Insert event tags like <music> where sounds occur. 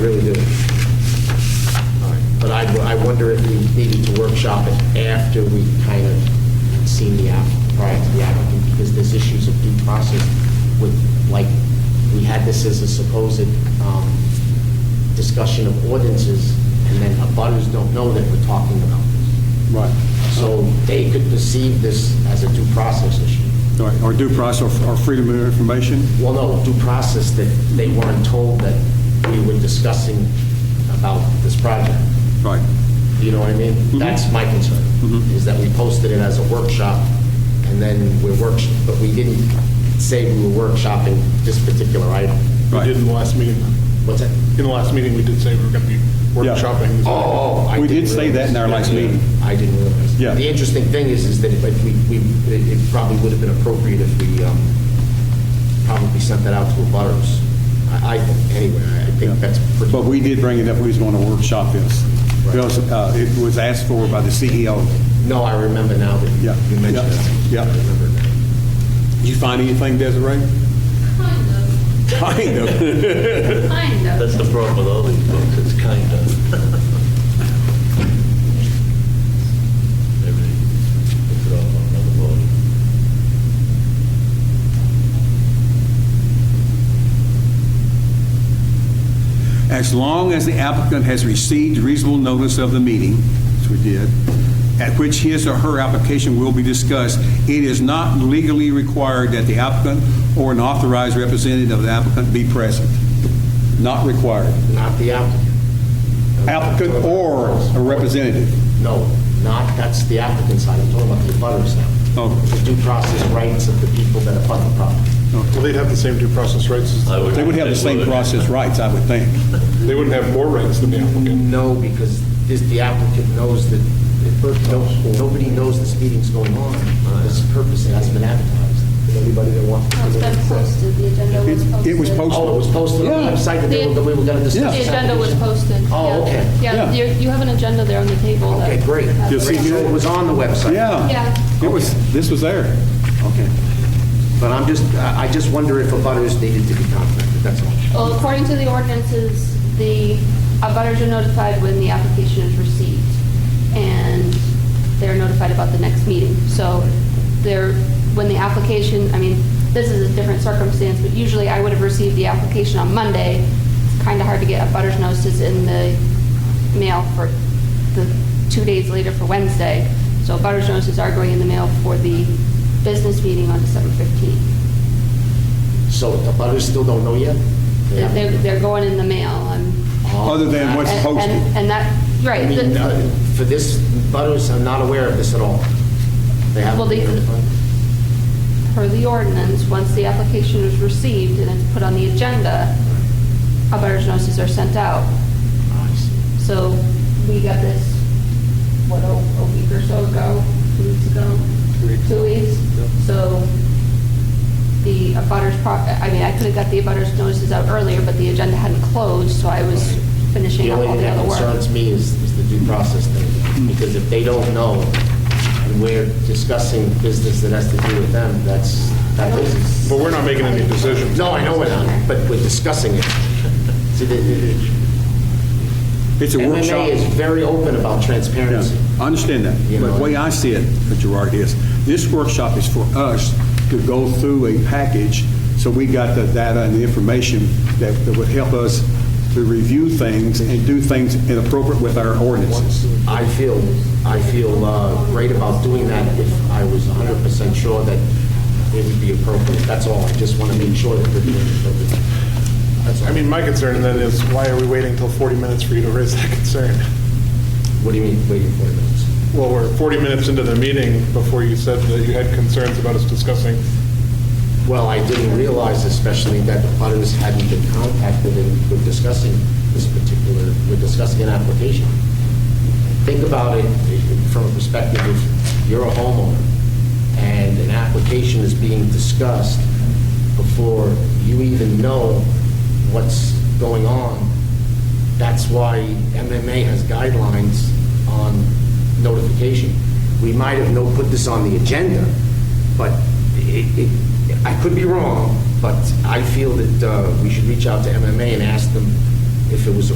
wonder if we needed to workshop it after we kind of seen the app, prior to the applicant, because there's issues of due process with, like, we had this as a supposed um, discussion of ordinances, and then abutters don't know that we're talking about this. Right. So they could perceive this as a due process issue. All right, Or due process, or freedom of information? Well, no, due process that they weren't told that we were discussing about this project. Right. You know what I mean? That's my concern, is that we posted it as a workshop, and then we're work, but we didn't say we were workshopping this particular item. We Right. did in the last meeting. What's that? In the last meeting, we did say we were going to be Yeah. workshopping. this. Oh, oh, I We didn't did say that in our realize. last meeting. I didn't realize. Yeah. The interesting thing is, is that if we, we, it it probably would have been appropriate if we, um, probably sent that out to the butters. I, I, think- anyway, I Yeah. think that's pretty. But we did bring it up, we was going to workshop this. Right. Because uh, it was asked for by the CEO. No, I remember now that Yeah. you mentioned that. I Yeah. Yeah. remember now. Did you find anything, Desiree? Kind of, Kind of. kind of. That's the problem with all these books, it's kind of. Everything, puts it all on another volume. As long as the applicant has received reasonable notice of the meeting, which we did, at which his or her application will be discussed, it is not legally required that the applicant or an authorized representative of the applicant be present. Not required. Not the applicant. Applicant or a representative. No, not, that's the applicant side, I'm talking about the butters now. Oh. The due process rights of the people that abut the property. Well, they'd have the same due process rights. as- I They would have the same process rights, I would think. They wouldn't have more rights than the applicant. No, because this, the applicant knows that, that per- no- nobody knows this meeting's going on. This purpose hasn't been advertised. Did Everybody that wants to No, come It's in. been posted, the agenda was It- posted. it was posted. Oh, it was posted on the Yeah. website that they were, that we were gonna discuss. The this agenda was application? posted. Oh, yeah. okay. Yeah. Yeah, you you have an agenda there on the table. that- Okay, great. that- Yes, Great, he so did. it was on the website. Yeah. Yeah. It was, this was there. Okay. But I'm just, I I just wonder if a butters needed to be contacted, that's all. Well, according to the ordinances, the abutters are notified when the application is received, and they're notified about the next meeting. So they're, when the application, I mean, this is a different circumstance, but usually I would have received the application on Monday. It's kind of hard to get abutters notices in the mail for the, two days later for Wednesday. So abutters notices are going in the mail for the business meeting on December 15th. So the butters still don't know yet? They're- They're, they're going in the mail and. Other than what's And- posted. And and that, right, I mean, the- uh, for this, butters are not aware of this at all. They haven't. Well, they- been notified? per the ordinance, once the application is received and it's put on the agenda, abutters notices are sent out. I see. So we got this, what, a a week or so ago, two weeks ago? Two weeks. So the abutters, pro- I mean, I could have got the abutters notices out earlier, but the agenda hadn't closed, so I was finishing The up only all thing the that other work. concerns me is, is the due process Hmm. thing, because if they don't know, and we're discussing business that has to do with them, that's, that is. But we're not making any decisions. No, I know we're not, but we're discussing <laughs> it. See, the- the- It's a workshop. MMA is very open about Yeah, transparency. I understand that. You But know. the way I see it, Gerard, is this workshop is for us to go through a package, so we got the data and the information that that would help us to review things and do things inappropriate with our ordinances. I feel, I feel uh, great about doing that if I was 100% sure that it would be appropriate. That's all, I just want to make sure that we're doing it appropriately. That's all. I mean, my concern then is, why are we waiting till 40 minutes for you to raise that <laughs> concern? What do you mean, waiting for minutes? Well, we're 40 minutes into the meeting before you said that you had concerns about us discussing. Well, I didn't realize especially that the butters hadn't been contacted and were discussing this particular, we're discussing an application. Think about it from a perspective of you're a homeowner and an application is being discussed before you even know what's going on. That's why MMA has guidelines on notification. We might have no, put this on the agenda, but it, it- I could be wrong, but I feel that uh, we should reach out to MMA and ask them if it was